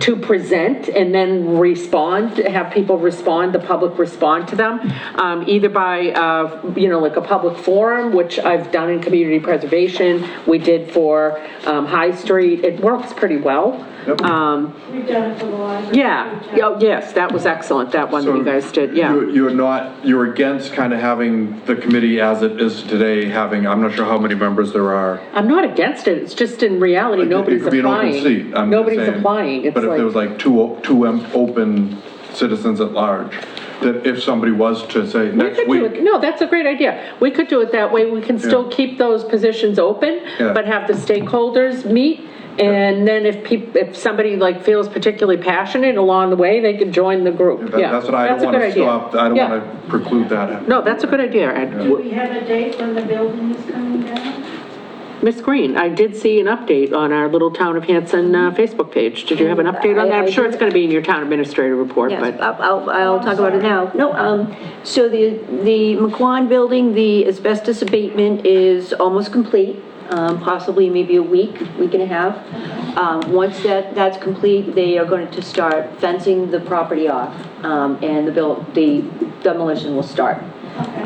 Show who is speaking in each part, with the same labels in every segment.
Speaker 1: to present and then respond, have people respond, the public respond to them, um, either by, uh, you know, like a public forum, which I've done in community preservation, we did for um, High Street, it works pretty well. Um,
Speaker 2: We've done it for the library.
Speaker 1: Yeah,
Speaker 2: We've done-
Speaker 1: Oh, yes, that was excellent, that one that you guys did, yeah.
Speaker 3: You- You're not, you're against kind of having the committee as it is today, having, I'm not sure how many members there are.
Speaker 1: I'm not against it, it's just in reality,
Speaker 3: It-
Speaker 1: nobody's
Speaker 3: It could be an
Speaker 1: applying.
Speaker 3: open seat, I'm just
Speaker 1: Nobody's
Speaker 3: saying.
Speaker 1: applying, it's
Speaker 3: But if there was
Speaker 1: like,
Speaker 3: like two, o- two em- open citizens at large, that if somebody was to say
Speaker 1: we
Speaker 3: next
Speaker 1: could do it,
Speaker 3: week,
Speaker 1: no, that's a great idea. We could do it that way, we can still
Speaker 3: Yeah.
Speaker 1: keep those positions open,
Speaker 3: Yeah.
Speaker 1: but have the stakeholders meet, and then if peop, if somebody like feels particularly passionate along the way, they can join the group,
Speaker 3: that-
Speaker 1: yeah.
Speaker 3: that's what I don't
Speaker 1: a
Speaker 3: want
Speaker 1: good
Speaker 3: to
Speaker 1: idea.
Speaker 3: stop, I don't
Speaker 1: Yeah.
Speaker 3: want to preclude that.
Speaker 1: No, that's a good idea, Ed.
Speaker 2: Do we have a date when the building is coming down?
Speaker 1: Miss Green, I did see an update on our Little Town of Hanson uh, Facebook page. Did you have an update on that? I'm sure it's going to be in your town administrator report,
Speaker 4: Yes,
Speaker 1: but,
Speaker 4: I'll- I'll, I'll talk about it now. No, um, so the, the McQuon building, the asbestos abatement is almost complete, um, possibly maybe a week, week and a half. Um, once that, that's complete, they are going to start fencing the property off, um, and the build, the demolition will start.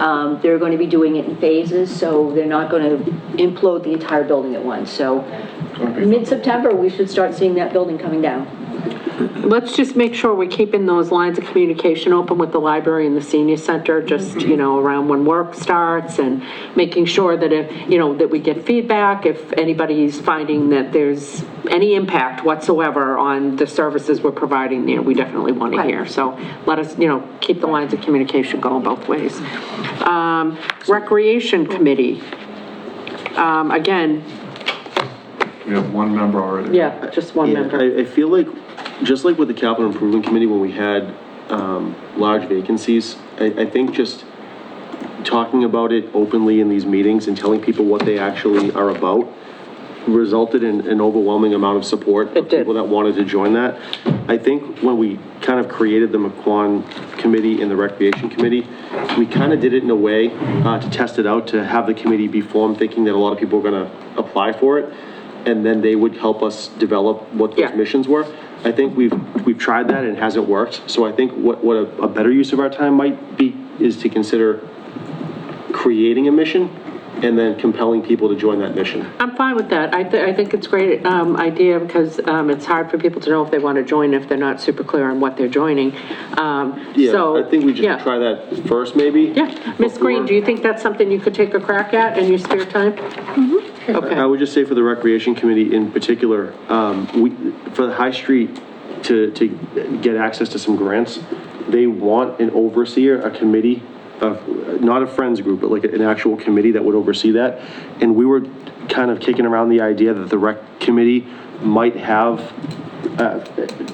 Speaker 4: Um, they're going to be doing it in phases, so they're not going to implode the entire building at once, so mid-September, we should start seeing that building coming down.
Speaker 1: let's just make sure we're keeping those lines of communication open with the library and the senior center, just, you know, around when work starts and making sure that if, you know, that we get feedback, if anybody's finding that there's any impact whatsoever on the services we're providing there, we definitely want to hear. So let us, you know, keep the lines of communication going both ways. Um, Recreation Committee, um, again,
Speaker 3: We have one member already.
Speaker 1: yeah, just one
Speaker 5: Yeah,
Speaker 1: member.
Speaker 5: I, I feel like, just like with the capital improvement committee, when we had, um, large vacancies, I, I think just talking about it openly in these meetings and telling people what they actually are about resulted in an overwhelming amount of support.
Speaker 1: It did.
Speaker 5: of People that wanted to join that. I think when we kind of created the McQuon Committee and the Recreation Committee, we kind of did it in a way uh, to test it out, to have the committee be formed, thinking that a lot of people were going to apply for it, and then they would help us develop what those
Speaker 1: Yeah.
Speaker 5: missions were. I think we've, we've tried that and it hasn't worked, so I think what, what a a better use of our time might be is to consider creating a mission and then compelling people to join that mission.
Speaker 1: I'm fine with that. I, th- I think it's a great um, idea because um, it's hard for people to know if they want to join if they're not super clear on what they're joining. Um, so,
Speaker 5: Yeah, I think we should
Speaker 1: yeah.
Speaker 5: try that first, maybe.
Speaker 1: Yeah, Ms. Green, do you think that's something you could take a crack at in your spare time?
Speaker 5: I
Speaker 1: Okay,
Speaker 5: Mm-hmm. would just say for the Recreation Committee in particular, um, we, for the High Street to, to get access to some grants, they want an overseer, a committee of, not a friends group, but like an actual committee that would oversee that. And we were kind of kicking around the idea that the Rec Committee might have, uh,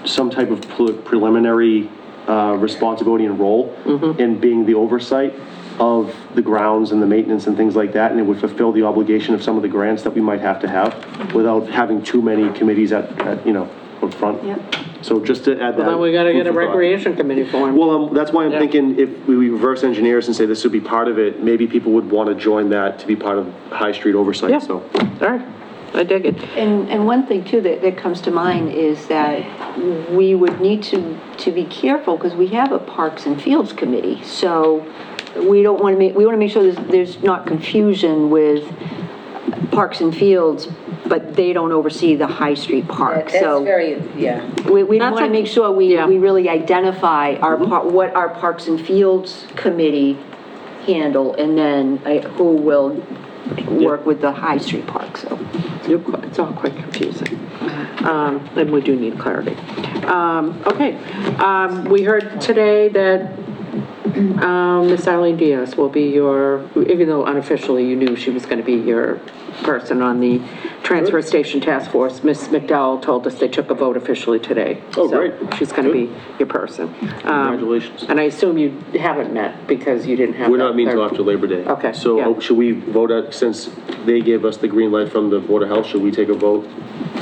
Speaker 5: some type of pre- preliminary, uh, responsibility and role in being the oversight of the grounds and the maintenance and things like that, and it would fulfill the obligation of some of the grants that we might have to have without having too many committees at, at, you know, up front.
Speaker 4: Yep.
Speaker 5: So just to add that.
Speaker 1: then we got to get a
Speaker 5: food for thought.
Speaker 1: recreation committee form.
Speaker 5: Well, um, that's why I'm thinking if we reverse engineers and say this would be part of it, maybe people would want to join that to be part of High Street
Speaker 1: Yeah,
Speaker 5: oversight,
Speaker 1: all
Speaker 5: so.
Speaker 1: right, I dig it.
Speaker 4: And, and one thing too that, that comes to mind is that we would need to, to be careful because we have a Parks and Fields Committee. So we don't want to make, we want to make sure there's, there's not confusion with Parks and Fields, but they don't oversee the High Street Park.
Speaker 6: That's
Speaker 4: So
Speaker 6: very, yeah.
Speaker 4: we, we
Speaker 1: That's
Speaker 4: want to
Speaker 1: a-
Speaker 4: make sure we,
Speaker 1: Yeah.
Speaker 4: we really identify our,
Speaker 6: Mm-hmm.
Speaker 4: par- what our Parks and Fields Committee handle and then uh, who will work with the High Street Park, so.
Speaker 1: You're qu- It's all quite confusing.
Speaker 5: Uh-huh.
Speaker 1: Um, And we do need clarity. Um, Okay, um, we heard today that um, Ms. Eileen Diaz will be your, even though unofficially you knew she was going to be your person on the Transfer Station Task Force, Ms. McDowell told us they took a vote officially today.
Speaker 5: Oh,
Speaker 1: So
Speaker 5: great.
Speaker 1: She's going to be your person. Um,
Speaker 5: Congratulations.
Speaker 1: And I assume you haven't met because you didn't have.
Speaker 5: We're
Speaker 1: that
Speaker 5: not meeting
Speaker 1: third-
Speaker 5: until after Labor Day.
Speaker 1: Okay,
Speaker 5: So
Speaker 1: yeah.
Speaker 5: uh, should we vote, out- since they gave us the green light from the Board of Health, should we take a vote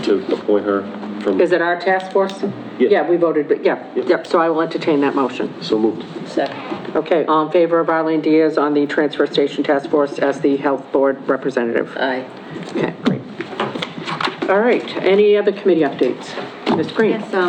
Speaker 5: to appoint her from?
Speaker 1: Is it our task force?
Speaker 5: Yeah.
Speaker 1: Yeah, we voted, but yeah, yep, so I will entertain that motion.
Speaker 5: So moved.
Speaker 6: Second.
Speaker 1: Okay, all in favor of Arlene Diaz on the Transfer Station Task Force as the Health Board Representative?
Speaker 6: Aye.
Speaker 1: Okay, great. All right, any other committee updates? Ms. Green?
Speaker 4: Yes, um,